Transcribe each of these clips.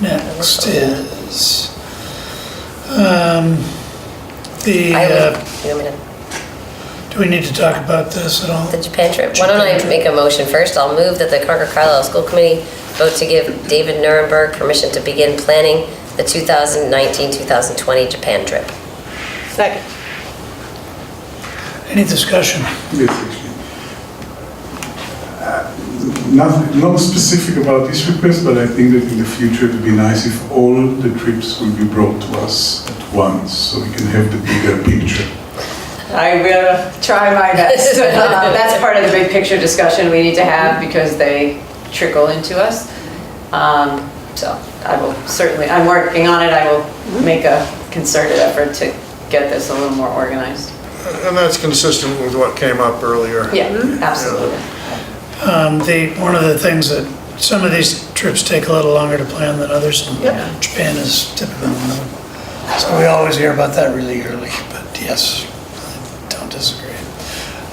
Next is, um, the, I would, uh, you want me to- do we need to talk about this at all? the Japan trip, why don't I make a motion first? I'll move that the Concord Carlisle School Committee vote to give David Nuremberg permission to begin planning the 2019-2020 Japan trip. Second. Any discussion? Yes, actually. Uh, Not, not specific about this request, but I think that in the future it would be nice if all the trips will be brought to us at once, so we can have the bigger picture. I will try my best. Uh, That's part of the big picture discussion we need to have because they trickle into us. Um, So I will certainly, I'm working on it. I will make a concerted effort to get this a little more organized. And that's consistent with what came up earlier. Yeah, absolutely. Um, the, one of the things that, some of these trips take a little longer to plan than others. and Yep. Japan is typically one of them. So we always hear about that really early, but yes, I don't disagree.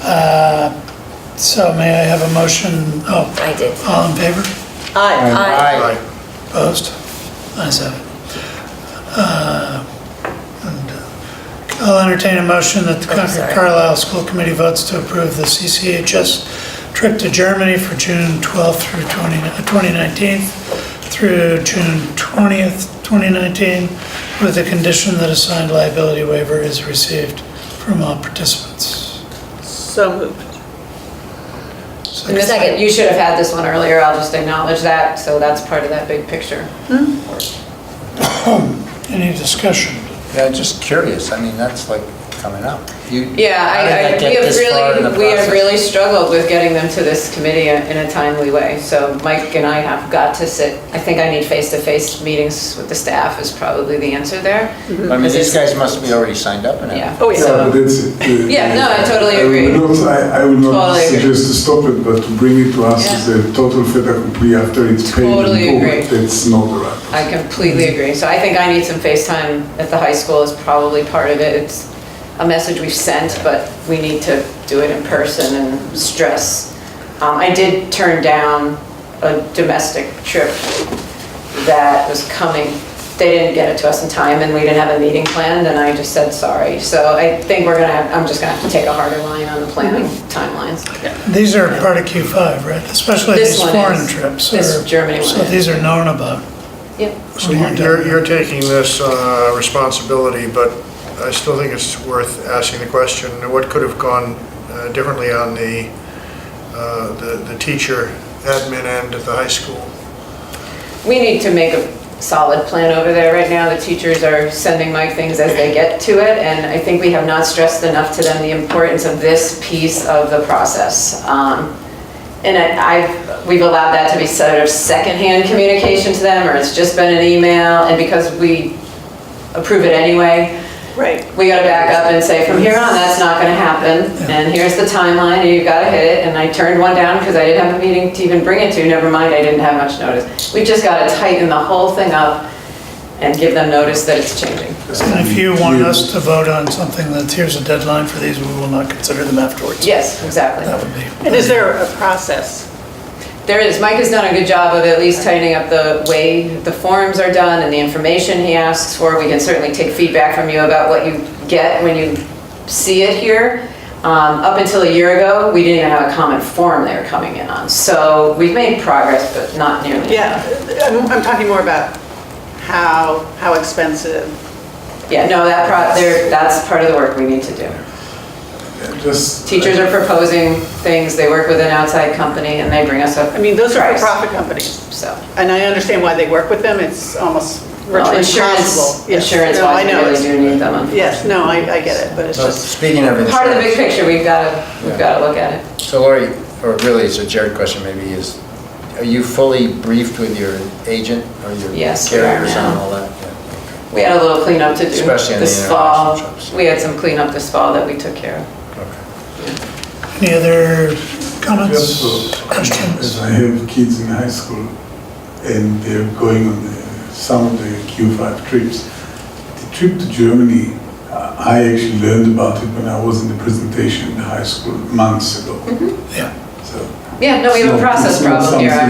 Uh, So may I have a motion? Oh, I did. all in favor? Aye. Aye. Right. Opposed? Ayes have it. Uh, and, uh, I'll entertain a motion that Oh, the I'm Concord sorry. Carlisle School Committee votes to approve the CCHS trip to Germany for June 12th through 20 uh, 2019 through June 20th, 2019, with the condition that a signed liability waiver is received from all participants. So moved. And this- Second. You should have had this one earlier. I'll just acknowledge that. So that's part of that big picture. Any discussion? Yeah, just curious, I mean, that's like coming up. You- Yeah, how did I, that I, get we have this far in the really, we have process? really struggled with getting them to this committee in a timely way. So Mike and I have got to sit, I think I need face-to-face meetings with the staff is probably the answer there. I mean, these guys must be already signed up and Yeah. everything. Oh, yeah. So- but that's it. Uh, Yeah, no, I totally would agree. not- I I would not Totally agree. suggest to stop it, but to bring it to us Yeah. as a total fait accompli after it's paid Totally and agree. booked, that's not the right. I completely agree. So I think I need some face time at the high school is probably part of it. It's a message we've sent, but we need to do it in person and stress. Um, I did turn down a domestic trip that was coming. They didn't get it to us in time and we didn't have a meeting planned and I just said sorry. So I think we're gonna, have- I'm just gonna have to take a harder line on the planning timelines. These are part of Q5, right? Especially This these one foreign is. trips. This are- Germany one So is. these are known about. Yep. So you're, you're taking this uh, responsibility, but I still think it's worth asking the question, what could have gone uh, differently on the, uh, the the teacher admin end at the high school? We need to make a solid plan over there. Right now, the teachers are sending Mike things as they get to it, and I think we have not stressed enough to them the importance of this piece of the process. Um, And I, I've- we've allowed that to be sort of secondhand communication to them, or it's just been an email, and because we approve it anyway, Right. we gotta back up and say, from here on, that's not gonna happen, and here's the timeline, and you've gotta hit it, and I turned one down because I didn't have a meeting to even bring it to, never mind, I didn't have much notice. We just gotta tighten the whole thing up and give them notice that it's changing. And if you want us to vote on something that's, here's a deadline for these, we will not consider them afterwards. Yes, exactly. That would be, And is there a process? There is, Mike has done a good job of at least tightening up the way the forms are done and the information he asks for. We can certainly take feedback from you about what you get when you see it here. Um, Up until a year ago, we didn't even have a common form they were coming in on. So we've made progress, but not nearly. Yeah, I'm, I'm talking more about how, how expensive. Yeah, no, that, pro- there- that's part of the work we need to do. Yeah, Just. Teachers are proposing things, they work with an outside company, and they bring us up. I mean, those are price. for-profit companies, So. and I understand why they work with them. It's almost Well, virtually insurance, impossible. Yes. insurance No, I wise, we know. really do need them. unfortunately. Yes, no, I, I get it, but it's So just, speaking of insurance. Part of the big picture, we've got to, we've got to look at it. So Lori, or really it's a Jared question maybe, is, are you fully briefed with your agent or your Yes, we are carriers now. on all that? Yeah. We had a little cleanup to do Especially in the this fall. international trips. We had some cleanup this fall that we took care of. any other Just comments, so- questions? As I have kids in high school and they're going on the, some of the Q5 trips. The trip to Germany, uh, I actually learned about it when I was in the presentation in high school months ago. Yeah. So Yeah, no, we have a It's not- process it's not problem here. something-